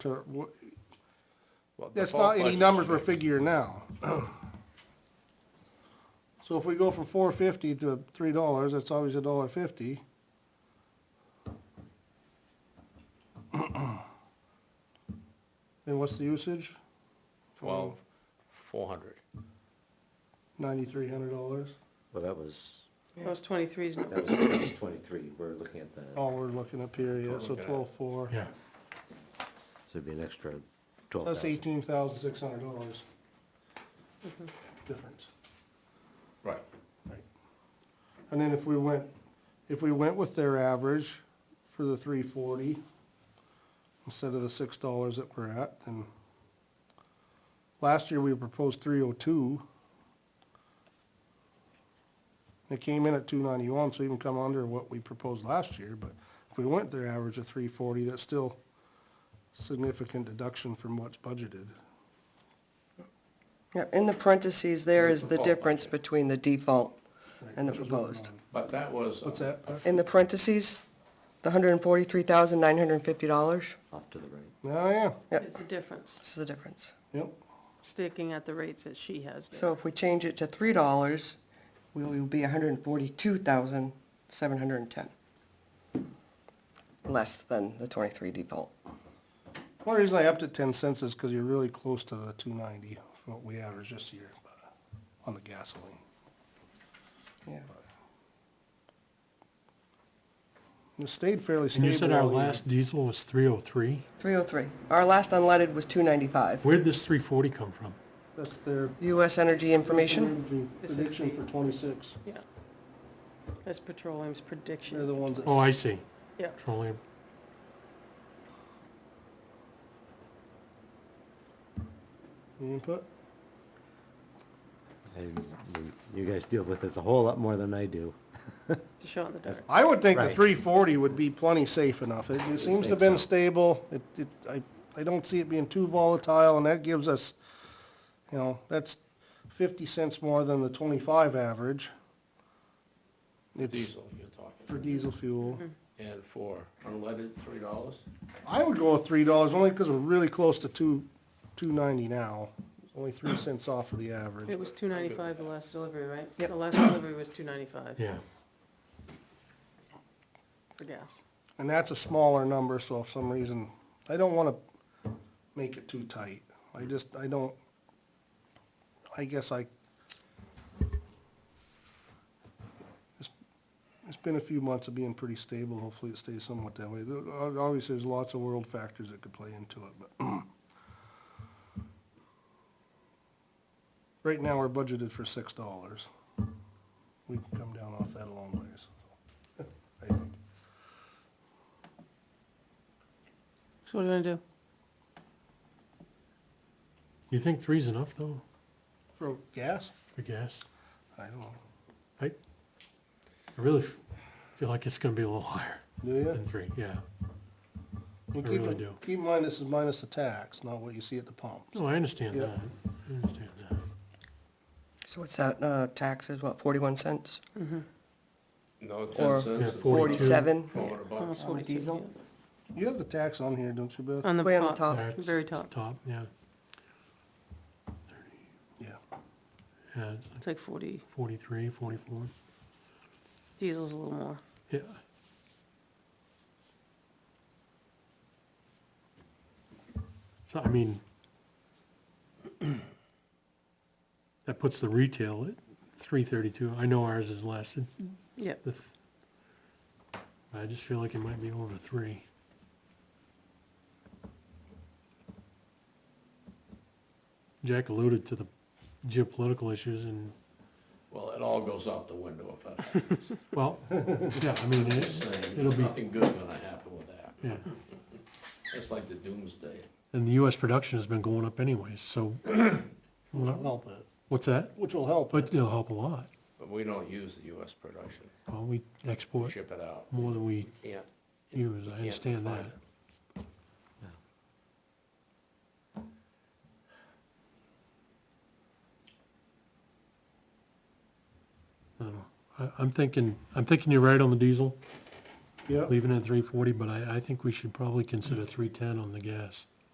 to, wh- Well, the that's bulk not any budget's numbers we're big. figuring now. So if we go from four fifty to three dollars, that's always a dollar fifty. And what's the usage? Twelve, four hundred. Ninety-three hundred dollars, Well, that was, Plus twenty-three is, that was, that was twenty-three, we're looking at that, so all Oh, we're looking up here, yeah, so Looking at- twelve-four. Yeah, it'd be an extra twelve That's thousand. eighteen thousand six hundred dollars. Difference. Right. And then if we went, if we went with their average for the three forty, instead of the six dollars that we're at, then last year we proposed three oh two. It came in at two ninety-one, so even come under what we proposed last year, but if we went their average of three forty, that's still significant deduction from what's budgeted. Yeah, in the parentheses, there is the Default. difference between the default and the proposed. But that was. uh, What's that? In the parentheses, the hundred and forty-three thousand, nine hundred and fifty dollars, Off to the right. Oh, yeah, is the difference, this is the difference. yep. sticking at the rates that she has there. So if we change it to three dollars, we will be hundred and forty-two thousand, seven hundred and ten. Less than the twenty-three default. One reason I upped it ten cents is because you're really close to the two ninety, what we averaged this year, but, on the gasoline. Yeah, It stayed fairly and you said stable our all year. last diesel was three oh three? three oh three. Our last unleaded was two ninety-five. Where'd this three forty come from? That's their. US Energy Information, This is Prediction the- for twenty-six, Yeah. That's petroleum's they're the prediction, ones that. Oh, I see. yeah. Petroleum. The input, And you- you guys deal with this a whole lot more than I do. It's a shot in the dark. I would think the Right. three forty would be plenty safe enough, it, it seems to have been think so. stable, it, it, I, I don't see it being too volatile, and that gives us, you know, that's fifty cents more than the twenty-five average. It's Diesel, you're talking. for diesel fuel. Mm-hmm. And for unleaded, three dollars? I would go with three dollars, only because we're really close to two, two ninety now, only three cents off of the average. It was two ninety-five the last delivery, right? Yep. The last delivery was two ninety-five Yeah, for gas. And that's a smaller number, so if some reason, I don't wanna make it too tight. I just, I don't, I guess I, it's, it's been a few months of being pretty stable, hopefully it stays somewhat that way. There- ob- Obviously, there's lots of world factors that could play into it, but right now, we're budgeted for six dollars. We can come down off that a long ways, I think. So what are we gonna do? you think three's enough though, For gas? for gas? I don't know. I, I really f- feel like it's gonna be a little higher Do you? than three, yeah. You I keep really in- do. Keep in mind, this is minus the tax, not what you see at the pumps. No, I understand Yeah. that, I understand that. so what's that, uh, tax is what, forty-one cents? No, ten Or- Yeah, cents. is Forty-two. Forty-seven? Four hundred bucks. Almost forty-two. diesel? yeah. You have the tax on here, don't you, Beth? On the Way on the top, top. That's very top. Top, yeah, Yeah. yeah, it's like It's like forty, forty-three, forty-four, diesel's a little more. yeah. So, I mean, that puts the retail at three thirty-two, I know ours is less, It- Yeah, the th- I just feel like it might be over three. Jack alluded to the geopolitical issues and, Well, it all goes out the window if that happens. well, yeah, I mean, Just it, saying, it'll be, Nothing good gonna happen with that. yeah. It's like the doomsday. And the US production has been going up anyways, so, Which will help it. what's that? Which will help But it. it'll help a lot. But we don't use the US production. Well, we We export ship it out. more than we Yeah. use, I can't find understand that. it. I don't know. I, I'm thinking, I'm thinking you're right on the diesel. Yep. leaving it at three forty, but I, I think we should probably consider three ten on the gas.